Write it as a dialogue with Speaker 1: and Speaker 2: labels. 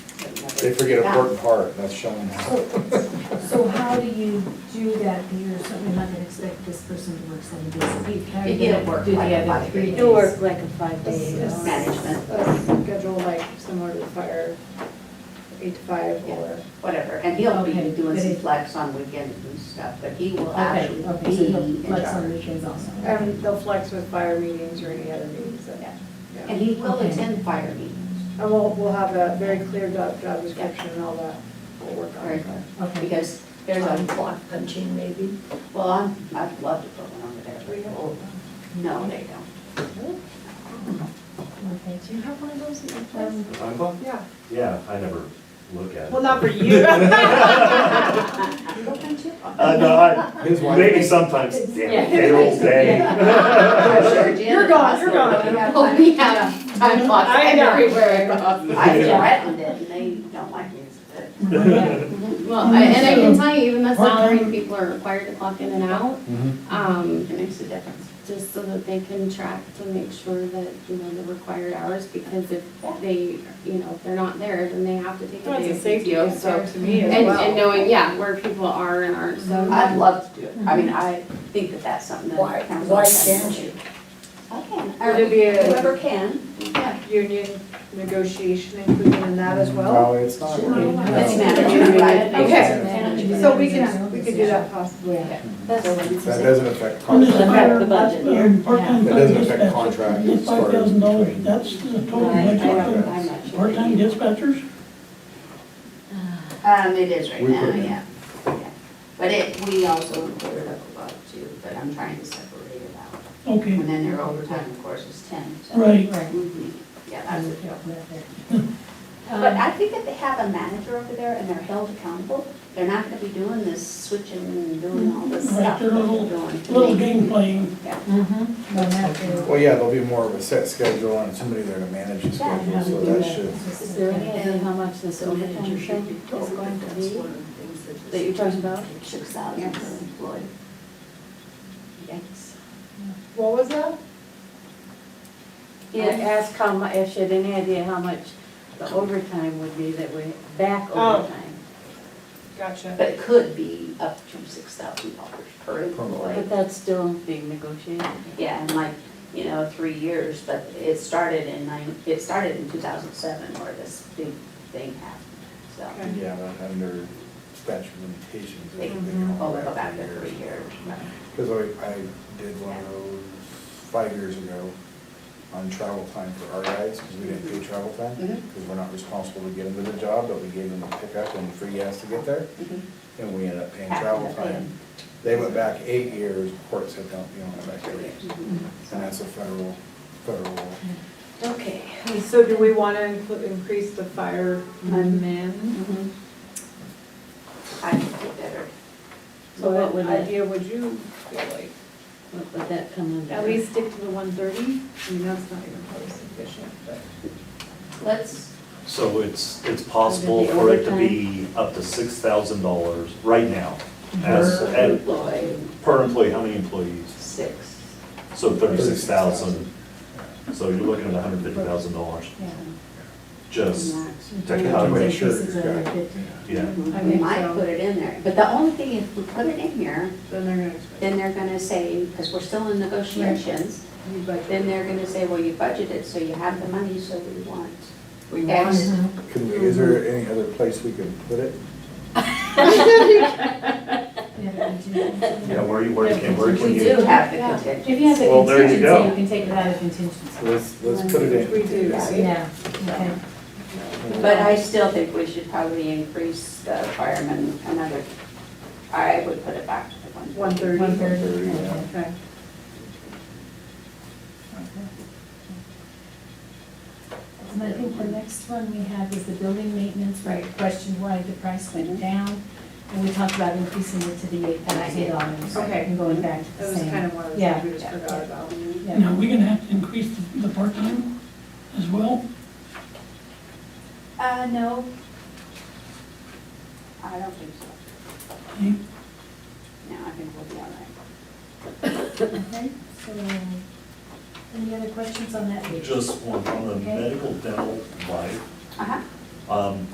Speaker 1: They forget a important part, that's showing
Speaker 2: Oh,
Speaker 1: up.
Speaker 3: So, so how do you do that, you're certainly not gonna expect this person to work seven days a week, how do
Speaker 2: You
Speaker 3: you
Speaker 2: get
Speaker 3: do the
Speaker 2: work like a
Speaker 3: other
Speaker 2: five
Speaker 3: three
Speaker 2: days.
Speaker 3: days?
Speaker 4: You work like a five-day
Speaker 5: This is-
Speaker 2: management.
Speaker 5: a schedule like similar to the fire, eight to five or.
Speaker 2: whatever, and he'll be
Speaker 3: Okay,
Speaker 2: doing
Speaker 3: but
Speaker 2: some
Speaker 3: it-
Speaker 2: flex on weekends and stuff, but he will
Speaker 3: Okay,
Speaker 2: actually
Speaker 3: okay, so
Speaker 2: be
Speaker 3: you'll
Speaker 2: in
Speaker 3: flex on
Speaker 2: charge.
Speaker 3: weekends also.
Speaker 5: And they'll flex with fire meetings or any other meetings that,
Speaker 2: Yeah.
Speaker 5: yeah.
Speaker 2: And he will
Speaker 3: Okay.
Speaker 2: attend fire meetings,
Speaker 5: And we'll, we'll have a very clear job, job description and all that, we'll work on
Speaker 2: Very
Speaker 5: it.
Speaker 2: good.
Speaker 3: Okay,
Speaker 2: because there's
Speaker 6: Time
Speaker 2: a,
Speaker 6: clock punching maybe?
Speaker 2: well, I'm, I'd love to put one over there.
Speaker 5: Do we have
Speaker 2: Oh, No, they don't.
Speaker 3: okay,
Speaker 5: Do you have one of those in your
Speaker 3: Um,
Speaker 7: Time clock?
Speaker 5: Yeah.
Speaker 7: Yeah, I never look at it.
Speaker 5: Well, not for you.
Speaker 7: Uh, no, I,
Speaker 1: His wife-
Speaker 7: maybe sometimes, damn,
Speaker 3: Yeah.
Speaker 7: it, payroll day.
Speaker 2: I'm sure Jen
Speaker 5: You're gone, you're
Speaker 2: across the-
Speaker 5: gone.
Speaker 2: Oh, we have time clocks
Speaker 5: I know.
Speaker 2: everywhere across. I
Speaker 3: Yeah.
Speaker 2: threatened it and they don't like it.
Speaker 3: yeah,
Speaker 8: Well, I- and I can tell you, even the salary people are required to clock in and out, um,
Speaker 2: It makes a difference.
Speaker 8: just so that they can track to make sure that, you know, the required hours, because if they, you know, if they're not there, then they have to take a
Speaker 5: Well,
Speaker 8: day
Speaker 5: It's a
Speaker 8: of
Speaker 5: safety
Speaker 8: PTO, so.
Speaker 5: concern to me as
Speaker 8: And,
Speaker 5: well. Mm-hmm.
Speaker 8: and knowing, yeah, where people are and aren't, so.
Speaker 2: I'd love to do it. I mean, I think that that's something that.
Speaker 6: Why,
Speaker 2: council
Speaker 6: why
Speaker 2: can
Speaker 6: can't
Speaker 2: do.
Speaker 6: you?
Speaker 2: I can.
Speaker 5: Would it be a-
Speaker 2: Whoever can, yeah.
Speaker 5: Union negotiation included in that as well?
Speaker 1: No, it's not.
Speaker 3: Sure.
Speaker 2: It's
Speaker 1: No.
Speaker 2: management, right?
Speaker 5: Okay.
Speaker 3: No.
Speaker 5: So we can, we could do that possibly.
Speaker 3: yeah.
Speaker 1: That doesn't affect contract,
Speaker 4: affect the budget.
Speaker 1: that doesn't affect contract. as far
Speaker 9: Five
Speaker 1: as
Speaker 9: thousand dollars,
Speaker 1: between-
Speaker 9: that's the total
Speaker 2: I- I
Speaker 9: budget
Speaker 2: don't-
Speaker 9: for
Speaker 2: I'm not sure.
Speaker 9: part-time dispatchers?
Speaker 2: Um, it is right
Speaker 1: We
Speaker 2: now,
Speaker 1: put it.
Speaker 2: yeah, yeah. But it, we also included up above too, but I'm trying to separate it out.
Speaker 9: Okay,
Speaker 2: And then their overtime, of course, is ten, so.
Speaker 9: right.
Speaker 3: Right.
Speaker 2: Mhm. Yeah, that's it. But
Speaker 3: Um,
Speaker 2: I think if they have a manager over there and they're held accountable, they're not gonna be doing this switching and doing all this
Speaker 9: Right,
Speaker 2: stuff that
Speaker 9: they're
Speaker 2: they're
Speaker 9: little-
Speaker 2: doing. to
Speaker 9: Little
Speaker 2: me.
Speaker 9: game playing,
Speaker 3: mhm, well, now they're-
Speaker 1: Well, yeah, there'll be more of a set schedule and somebody there to manage the
Speaker 2: Yeah,
Speaker 1: schedule, so that should.
Speaker 4: Is there any idea how much this manager thing is going to
Speaker 6: That's
Speaker 4: be
Speaker 6: one of the things that just-
Speaker 4: that you're talking about?
Speaker 2: Six thousand per
Speaker 4: Yes.
Speaker 2: employee. Yikes.
Speaker 5: What was that?
Speaker 4: Yeah, ask how mu, if she had any idea how much the overtime would be that we, back
Speaker 5: Oh.
Speaker 4: overtime.
Speaker 5: Gotcha.
Speaker 2: But it could be up to six thousand dollars per employee.
Speaker 4: But that's still being negotiated.
Speaker 2: Yeah, and like, you know, three years, but it started in nine, it started in two thousand seven where this big thing happened, so.
Speaker 5: Okay.
Speaker 1: Yeah, but under statute limitations.
Speaker 2: They
Speaker 4: Mm-hmm.
Speaker 1: everything, all
Speaker 2: all
Speaker 1: that
Speaker 2: go back to
Speaker 1: years.
Speaker 2: three years.
Speaker 1: Because I, I did one of those five years ago on travel time for our guys, because we didn't pay travel time.
Speaker 2: Mhm.
Speaker 1: Because we're not responsible to get them to the job, but we gave them a pickup and free gas to get there,
Speaker 4: Mm-hmm.
Speaker 1: and we ended up paying
Speaker 2: Half
Speaker 1: travel
Speaker 2: of the
Speaker 1: time.
Speaker 2: thing.
Speaker 1: They went back eight years, court said, don't, you don't go back eight years.
Speaker 2: Mm-hmm.
Speaker 1: And that's a federal, federal law.
Speaker 2: Okay.
Speaker 5: So do we want to increase the fireman man?
Speaker 4: Mm-hmm.
Speaker 2: I can do better.
Speaker 4: So what would
Speaker 5: What
Speaker 4: it,
Speaker 5: idea would you feel like?
Speaker 4: what would that come under?
Speaker 5: At least stick to the one thirty? I mean, that's not even probably sufficient, but.
Speaker 2: Let's,
Speaker 7: So it's, it's possible for it to be up to six thousand dollars right now. As, at,
Speaker 2: employ
Speaker 7: per employee, how many employees?
Speaker 2: six.
Speaker 7: So thirty-six thousand. So you're looking at hundred fifty thousand dollars,
Speaker 3: yeah.
Speaker 7: just
Speaker 2: max.
Speaker 7: technically.
Speaker 1: Sure.
Speaker 3: This is a fifty.
Speaker 7: Yeah,
Speaker 5: I
Speaker 2: We
Speaker 5: think
Speaker 2: might
Speaker 5: so.
Speaker 2: put it in there, but the only thing, if we put it in here,
Speaker 5: Then they're gonna expect.
Speaker 2: then they're gonna say, because we're still in negotiations,
Speaker 5: you budget.
Speaker 2: then they're gonna say, well, you budgeted, so you have the money, so we want.
Speaker 6: We
Speaker 2: X.
Speaker 6: want,
Speaker 1: Can we, is there any other place we can put it?
Speaker 3: Yeah, we do.
Speaker 7: yeah, where you, where you can, where can
Speaker 3: We
Speaker 2: We
Speaker 7: you?
Speaker 2: do have the
Speaker 5: Yeah.
Speaker 2: contingency.
Speaker 3: If you have the
Speaker 7: Well, there you
Speaker 3: contingency, you
Speaker 7: go.
Speaker 3: can take it out of contingency.
Speaker 1: Let's, let's put it in.
Speaker 5: Which we do, right?
Speaker 3: Yeah, okay.
Speaker 2: But I still think we should probably increase the firemen another, I would put it back to the one.
Speaker 5: One thirty.
Speaker 3: One thirty.
Speaker 1: yeah.
Speaker 5: Okay.
Speaker 3: And I think the next one we had was the building maintenance, where I questioned why the price went
Speaker 5: Mm-hmm.
Speaker 3: down. And we talked about increasing it to the eight thousand dollars.
Speaker 5: Okay.
Speaker 3: And going back to
Speaker 5: That
Speaker 3: the
Speaker 5: was kind
Speaker 3: same.
Speaker 5: of one of the
Speaker 3: Yeah.
Speaker 5: things we just forgot about.
Speaker 3: Yeah.
Speaker 9: Now, we're gonna have to increase the, the part-time as well?
Speaker 2: Uh, no. I don't think so.
Speaker 9: Okay.
Speaker 2: No, I think we'll be all right.
Speaker 3: Okay, so, um, any other questions on that page?
Speaker 7: Just one, on the medical dental life,
Speaker 2: Uh-huh.
Speaker 7: um,